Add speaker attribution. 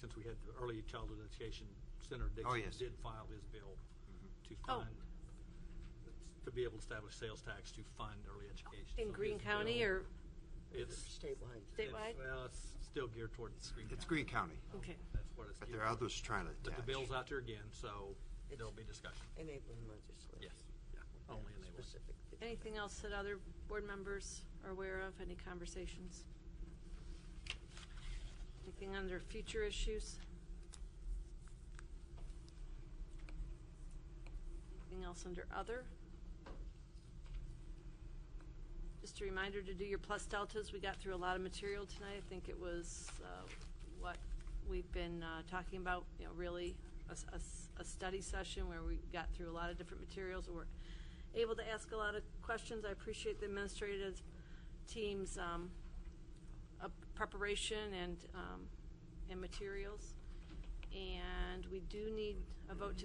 Speaker 1: since we had the Early Childhood Education Center,
Speaker 2: Oh,
Speaker 1: Dixon
Speaker 2: yes.
Speaker 1: did file his bill
Speaker 2: Mhm.
Speaker 1: to
Speaker 3: Oh.
Speaker 1: fund, to be able to establish sales tax to fund early education.
Speaker 3: In
Speaker 1: So
Speaker 3: Greene
Speaker 1: his
Speaker 3: County
Speaker 1: bill-
Speaker 3: or,
Speaker 1: It's.
Speaker 4: Statewide.
Speaker 1: it's-
Speaker 3: Statewide?
Speaker 1: Well, it's still geared towards Greene County.
Speaker 2: It's Greene County,
Speaker 3: okay.
Speaker 1: That's what it's.
Speaker 2: but
Speaker 1: geared
Speaker 2: there are
Speaker 1: towards.
Speaker 2: others trying to
Speaker 1: But
Speaker 2: attach.
Speaker 1: the bill's out there again, so
Speaker 4: It's-
Speaker 1: there'll be discussion.
Speaker 4: Enabling legislation.
Speaker 1: Yes, yeah,
Speaker 4: With that
Speaker 1: only enabling.
Speaker 4: specific thing.
Speaker 3: Anything else that other board members are aware of? Any conversations? Anything under future issues? Anything else under other? Just a reminder to do your plus deltas. We got through a lot of material tonight. I think it was uh, what we've been uh, talking about, you know, really a, s- a s- a study session where we got through a lot of different materials. and We're able to ask a lot of questions. I appreciate the administrative team's um, uh, preparation and, um, and materials. And we do need a vote to